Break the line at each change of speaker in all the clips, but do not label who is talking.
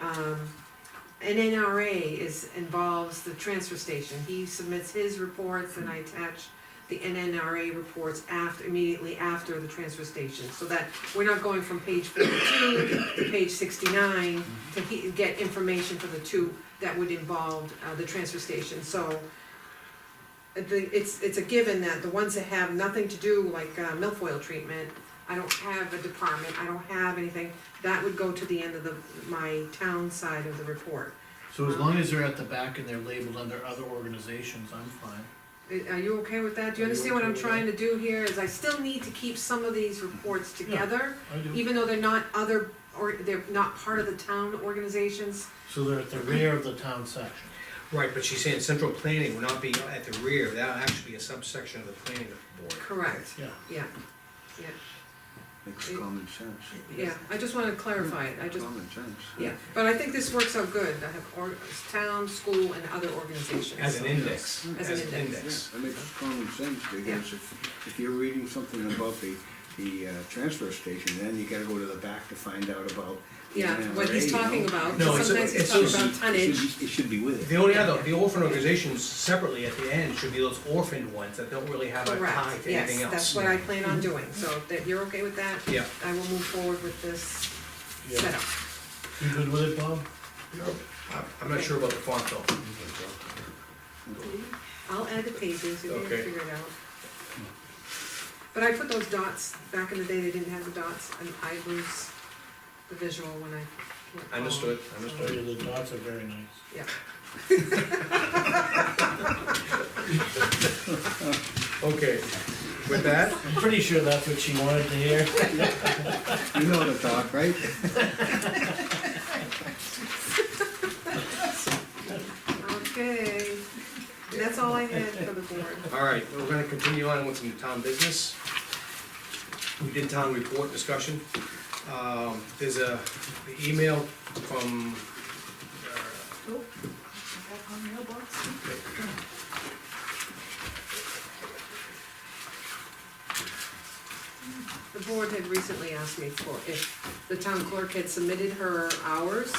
um, an NRA is, involves the transfer station. He submits his reports and I attach the NNRA reports after, immediately after the transfer station. So that we're not going from page forty-two to page sixty-nine to he, get information for the two that would involve, uh, the transfer station. So I think it's, it's a given that the ones that have nothing to do, like, uh, milfoil treatment, I don't have a department, I don't have anything, that would go to the end of the, my town side of the report.
So as long as they're at the back and they're labeled under other organizations, I'm fine.
I- Uh, Are you okay with that? Do you
Are you
understand what
okay
I'm
with
trying to do here, is I still need to keep some of these reports together,
I do.
even though they're not other, or they're not part of the town organizations?
So they're at the rear of the town section.
Right, but she's saying central planning will not be at the rear, that'll actually be a subsection of the planning board.
Correct,
Yeah.
yeah,
Makes
It-
common sense.
yeah, I just wanna clarify it, I just,
Common sense.
yeah, but I think this works out good, I have or, town, school, and other organizations.
As an index,
As
as
an
an
Yeah,
index.
that makes common sense, because if, if you're reading something about the, the, uh, transfer station, then you gotta go to the back to find out about. the
Yeah, what he's
NRA, you know?
talking about,
No, it's-
sometimes he's
it's
talking
just-
about
It
tonnage,
should be- it should be with
The
it.
only other, the orphan organizations separately at the end should be those orphaned ones that don't really have a tie
correct,
to anything
yes,
else.
that's what I plan on doing, so if that, you're okay with that?
Yeah.
I will move forward with this setup.
You good with it, Bob?
I'm- I'm not sure about the font though.
I'll add the pages, you can
Okay.
figure it out. But I put those dots, back in the day, they didn't have the dots, and I lose the visual when I. can't follow.
Understood, understood.
Oh, Yeah, the dots are very nice.
Yeah,
Okay, with that,
I'm pretty sure that's what she wanted to hear.
You know the talk, right?
okay, that's all I had for the board.
all right, we're gonna continue on with some town business. We did town report discussion. Um, there's a the email from, uh,
Oh, I got my mailbox. The board had recently asked me for, if the town clerk had submitted her hours,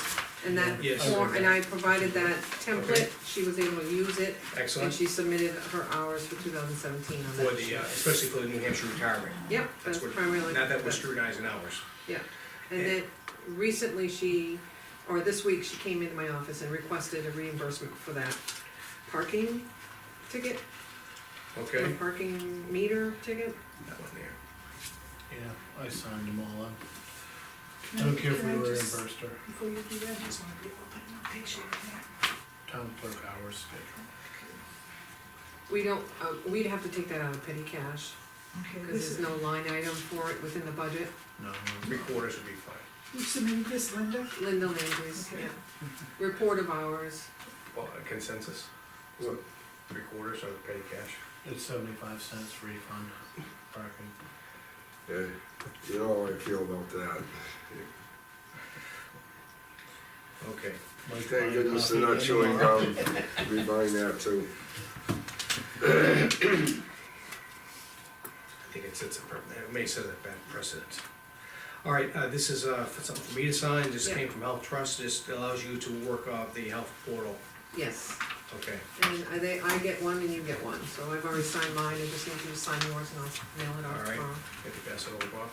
and that
Yes.
form, and I provided that template,
Okay.
she was able to use it, and
excellent,
she submitted her hours for two thousand seventeen on
for
that.
the, uh, especially for the New Hampshire retirement.
Yep,
That's
that's
what-
primarily.
Not that Eh. we're
that-
scrutinizing hours.
Yeah, and then recently she, or this week, she came into my office and requested a reimbursement for that parking ticket, or
Okay.
parking meter ticket.
That one there.
Yeah, I signed them all up. I don't care if we
Can I
were
just-
reimbursed or
Before you do that, I just wanna be able to put in a picture of that.
town clerk hours schedule.
We don't, uh, we'd have to take that out of petty cash,
Okay,
because
this
there's
is,
no line item for it within the budget.
No,
Three quarters would be fine.
you submitted this, Linda?
Linda Landry's,
Okay.
yeah, report of hours,
Well, a consensus, What, three quarters of petty cash.
it's seventy-five cents refund parking.
Yeah, you know how I feel about that.
Okay,
Like
Thank
buying
goodness they're
coffee
not chewing
anymore.
gum, we buying that too.
I think it sets a, pre- it may set a bad precedent. All right, uh, this is, uh, for something for me to sign, this
Yeah.
came from Health Trust, this allows you to work off the health portal,
yes.
okay?
And I, they, I get one and you get one, so I've already signed mine, I just need you to sign yours and I'll mail it
All
out
right.
tomorrow.
Get the pass it over, Bob.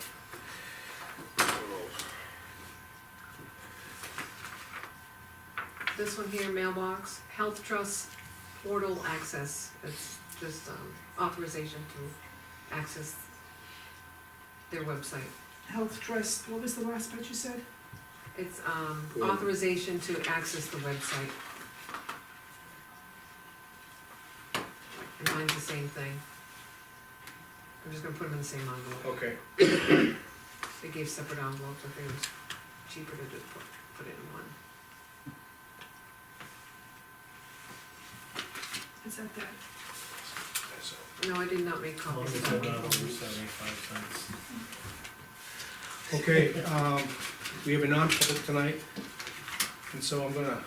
This one here, mailbox, health trust portal access, it's just um, authorization to access their website.
Health Trust, what was the last part you said?
It's um,
Cool.
authorization to access the website. And mine's the same thing. I'm just gonna put them in the same envelope,
Okay,
they gave separate envelopes, I think it was cheaper to just put, put it in one.
Is that that?
that's all.
No, I did not make
As long
copies
as
of
they're not over
that.
seventy-five cents.
Okay, um, we have a non-public tonight, and so I'm gonna,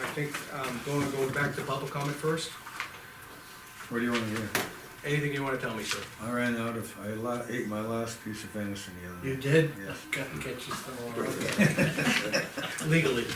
I think, I'm gonna go back to public comment first.
What do you wanna hear?
Anything you wanna tell me, sir?
I ran out of, I la- ate my last piece of venison the other night.
You did?
Yeah.
Gotta get you some more.
Legally.